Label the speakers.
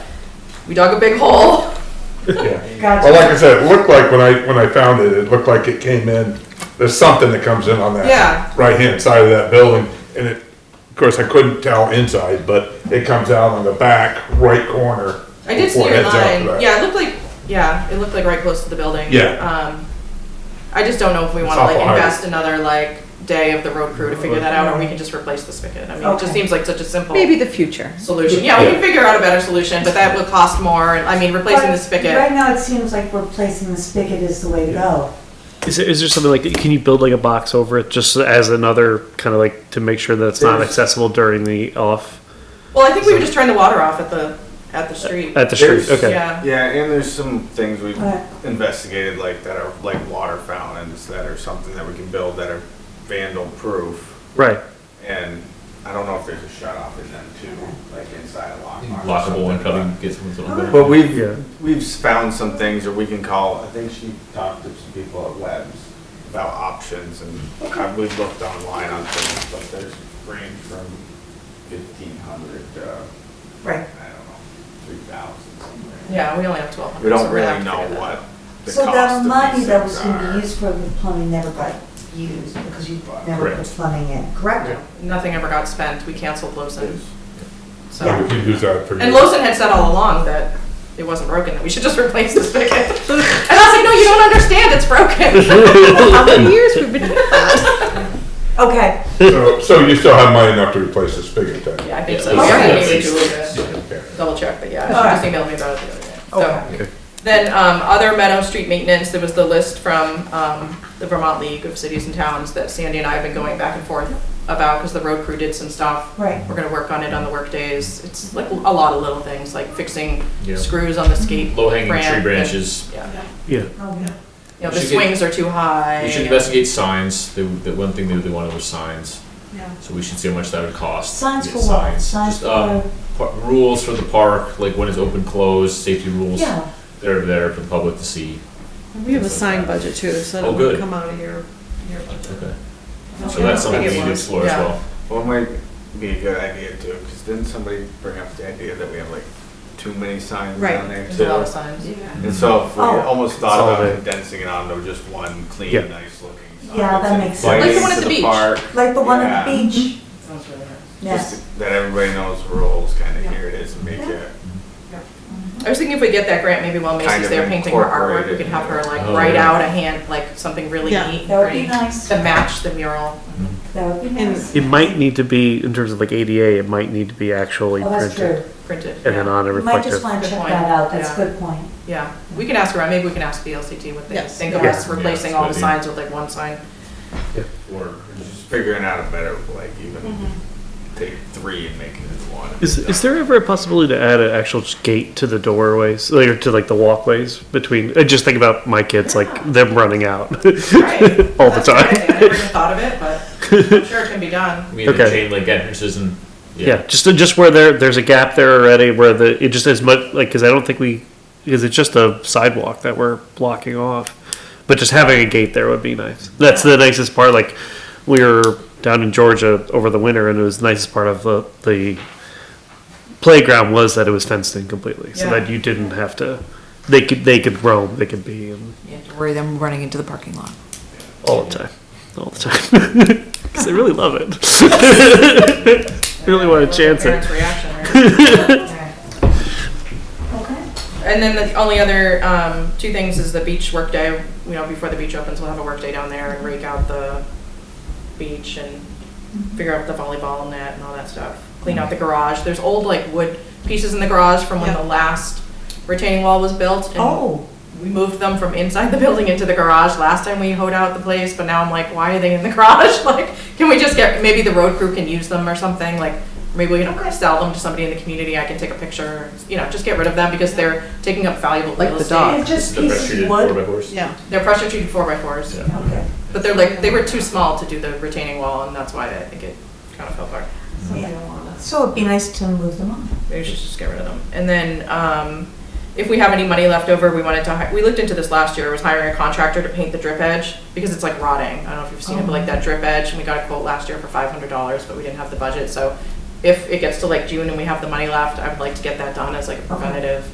Speaker 1: we dug a big hole.
Speaker 2: yeah. Well, like
Speaker 3: Gotcha.
Speaker 2: I said, it looked like when I, when I found it, it looked like it came in, there's something that comes in on
Speaker 1: Yeah.
Speaker 2: that right-hand side of that building. And it, of course, I couldn't tell inside, but it comes out on the back right corner.
Speaker 1: I did see
Speaker 2: before it
Speaker 1: your
Speaker 2: Oh, heads out to
Speaker 1: line.
Speaker 2: that.
Speaker 1: Yeah, it looked like, yeah, it looked like right close to the building.
Speaker 2: Yeah.
Speaker 1: Um, I just don't know if we wanna
Speaker 2: off
Speaker 1: like
Speaker 2: the highway.
Speaker 1: invest another like day of the road crew to figure that out, or we can just replace the spigot. I mean, it just
Speaker 3: Okay.
Speaker 1: seems like such a simple
Speaker 4: Maybe the future.
Speaker 1: solution. Yeah, we can figure out a better solution, but that will cost more, and I mean, replacing the
Speaker 3: But
Speaker 1: spigot.
Speaker 3: Right now, it seems like replacing the spigot is the way to go.
Speaker 5: Is there, is there something like can you build like a box over it just as another kind of like to make sure that it's not
Speaker 6: There's-
Speaker 5: accessible during the off
Speaker 1: Well, I think we would just turn the water off at the, at the street.
Speaker 5: at the street?
Speaker 6: There's-
Speaker 5: Okay.
Speaker 1: Yeah.
Speaker 6: Yeah, and there's some things we've
Speaker 3: Right.
Speaker 6: investigated, like that are like water fountains that are something that we can build that are vandal proof.
Speaker 5: Right.
Speaker 6: And I don't know if there's a shut off in them too, like inside a lock. box or
Speaker 7: lockable and
Speaker 6: something, but-
Speaker 7: cutting, get someone's on the
Speaker 6: But we've
Speaker 5: Yeah.
Speaker 6: we've found some things that we can call. I think she talked to some people at Webs about options, and I- we've looked online on things, but there's range from fifteen hundred to
Speaker 3: Right.
Speaker 6: I don't know three thousand somewhere.
Speaker 1: Yeah, we only have twelve hundred.
Speaker 6: We don't really know what the
Speaker 3: So that
Speaker 6: cost of
Speaker 3: money
Speaker 6: these
Speaker 3: that
Speaker 6: things
Speaker 3: was gonna
Speaker 6: are.
Speaker 3: be used for the plumbing never got used because you never put
Speaker 6: Correct.
Speaker 3: plumbing in, correct?
Speaker 1: Nothing ever got spent. We canceled Lawson, so.
Speaker 2: We could use that for.
Speaker 1: And Lawson had said all along that it wasn't broken, that we should just replace the spigot. And I was like, no, you don't understand, it's broken.
Speaker 4: How many years we've been,
Speaker 3: Okay,
Speaker 2: So, so you still have money enough to replace the spigot then?
Speaker 1: Yeah, I think so.
Speaker 3: Yeah,
Speaker 1: Yeah,
Speaker 3: that's-
Speaker 1: maybe Julie did.
Speaker 2: Okay.
Speaker 1: Double check, but yeah,
Speaker 3: All
Speaker 1: she
Speaker 3: right.
Speaker 1: just emailed me about it the other day.
Speaker 3: Okay.
Speaker 1: So, then, um, other Meadow Street maintenance, there was the list from, um, the Vermont League of Cities and Towns that Sandy and I have been going back and forth about, because the road crew did some stuff.
Speaker 3: right.
Speaker 1: We're gonna work on it on the work days. It's like a lot of little things, like fixing
Speaker 7: Yeah.
Speaker 1: screws on the skate.
Speaker 7: Low hanging
Speaker 1: ramp
Speaker 7: tree
Speaker 1: and-
Speaker 7: branches.
Speaker 1: Yeah.
Speaker 5: Yeah.
Speaker 3: Oh,
Speaker 1: You know, the
Speaker 7: We should get-
Speaker 1: swings are too high.
Speaker 7: We should investigate signs. They, the one thing they really wanted was signs.
Speaker 3: Yeah.
Speaker 7: So we should see how much that would cost.
Speaker 3: Signs
Speaker 7: Get
Speaker 3: for what? Signs
Speaker 7: Just, um,
Speaker 6: uh,
Speaker 3: for,
Speaker 7: par- rules for the park, like when it's open, closed, safety rules
Speaker 3: yeah.
Speaker 7: that are there for the public to see.
Speaker 4: we have a sign budget too, so
Speaker 7: Oh,
Speaker 4: that'll
Speaker 7: good.
Speaker 4: come out of here. here about that.
Speaker 7: Okay. So that's something we need to explore as
Speaker 1: Yeah.
Speaker 7: well.
Speaker 6: Well, it might be a good idea too, because didn't somebody bring up the idea that we have like too many signs
Speaker 4: Right.
Speaker 6: down there
Speaker 1: There's a lot of
Speaker 6: too?
Speaker 1: signs.
Speaker 6: And so if we
Speaker 3: Oh.
Speaker 6: almost thought
Speaker 5: Solve
Speaker 6: about
Speaker 5: it.
Speaker 6: condensing it onto just one
Speaker 5: Yeah.
Speaker 6: clean, nice looking. sign
Speaker 3: Yeah, that
Speaker 6: that's
Speaker 3: makes sense. Like the
Speaker 6: inviting
Speaker 1: one at
Speaker 6: to
Speaker 1: the beach.
Speaker 6: park,
Speaker 3: Like the one at the
Speaker 6: Yeah. Mm-hmm.
Speaker 3: beach,
Speaker 1: Sounds really nice.
Speaker 3: yes.
Speaker 6: just That everybody knows the rules, kind of here it is, and make it.
Speaker 3: Mm-hmm.
Speaker 1: I was thinking if we get that grant, maybe while
Speaker 6: Kind
Speaker 1: Macy's
Speaker 6: of
Speaker 1: there painting her artwork, we
Speaker 6: incorporated.
Speaker 1: could have her like
Speaker 7: Oh,
Speaker 1: write
Speaker 7: yeah.
Speaker 1: out a hand, like something really
Speaker 4: Yeah.
Speaker 1: neat and
Speaker 3: That would be
Speaker 1: pretty
Speaker 3: nice.
Speaker 1: to match the mural.
Speaker 3: That would be
Speaker 4: And-
Speaker 3: nice.
Speaker 5: It might need to be in terms of like ADA. It might need to be actually
Speaker 3: Oh, that's true.
Speaker 5: printed
Speaker 1: printed.
Speaker 5: and then
Speaker 1: yeah.
Speaker 5: on a
Speaker 3: You might
Speaker 5: reflective.
Speaker 3: just want
Speaker 1: Good
Speaker 3: to check
Speaker 1: point.
Speaker 3: that out, that's a
Speaker 1: Yeah.
Speaker 3: good point.
Speaker 1: Yeah, we can ask around, maybe we can ask the LCT what they
Speaker 4: Yes.
Speaker 1: think of
Speaker 5: Yeah.
Speaker 1: us replacing
Speaker 7: Yeah,
Speaker 1: all the
Speaker 7: maybe.
Speaker 1: signs with like one sign.
Speaker 6: Or just figuring out a better, like even
Speaker 3: Mm-hmm.
Speaker 6: take three and make it into one.
Speaker 5: Is, is there ever a possibility to add an actual just gate to the doorways, like, or to like the walkways between? I just think about my kids, like them running out
Speaker 1: Right.
Speaker 5: all the
Speaker 1: That's a good
Speaker 5: time.
Speaker 1: idea. I never even thought of it, but I'm sure it can be done.
Speaker 7: I mean, the
Speaker 5: Okay.
Speaker 7: chain link entrances and
Speaker 5: Yeah, just just where there there's a gap there already, where the it just as much like because I don't think we because it's just a sidewalk that we're blocking off, but just having a gate there would be nice. That's the nicest part. Like we were down in Georgia over the winter, and it was the nicest part of the the playground was that it was fenced in completely, so
Speaker 1: Yeah.
Speaker 5: that you didn't have to. They could they could roam, they could be in
Speaker 1: You have to
Speaker 8: worry them running into the parking lot.
Speaker 5: all the time, all the time, because they really love it. Really wanna
Speaker 1: What's the
Speaker 5: chance it.
Speaker 1: parents' reaction, right?
Speaker 3: Okay.
Speaker 1: And then the only other, um, two things is the beach workday, you know, before the beach opens, we'll have a workday down there and rake out the beach and figure out the volleyball net and all that stuff. Clean out the garage. There's old like wood pieces in the garage from when the last retaining wall was built. and
Speaker 3: Oh,
Speaker 1: We moved them from inside the building into the garage last time we hoed out the place, but now I'm like, why are they in the garage? Like, can we just get, maybe the road crew can use them or something, like, maybe we can sell them to somebody in the community, I can take a picture, you know, just get rid of them because they're taking up valuable
Speaker 4: Like
Speaker 1: real
Speaker 4: the
Speaker 1: estate.
Speaker 4: dog.
Speaker 3: it's just
Speaker 7: the press
Speaker 3: pieces
Speaker 7: treated
Speaker 3: of
Speaker 7: four by
Speaker 3: wood.
Speaker 7: horse.
Speaker 4: Yeah,
Speaker 1: They're pressure treated four by fours,
Speaker 7: Yeah.
Speaker 3: Okay.
Speaker 1: but they're like, they were too small to do the retaining wall and that's why I think it kind of fell apart.
Speaker 3: So it'd be nice to move them on.
Speaker 1: Maybe we should just get rid of them. And then, um, if we have any money left over, we wanted to, hi- we looked into this last year, was hiring a contractor to paint the drip edge, because it's like rotting. I don't know if you've seen it, but like that drip edge, and we got a quote last year for five hundred dollars, but we didn't have the budget, so if it gets to like June and we have the money left, I would like to get that done as like a preventative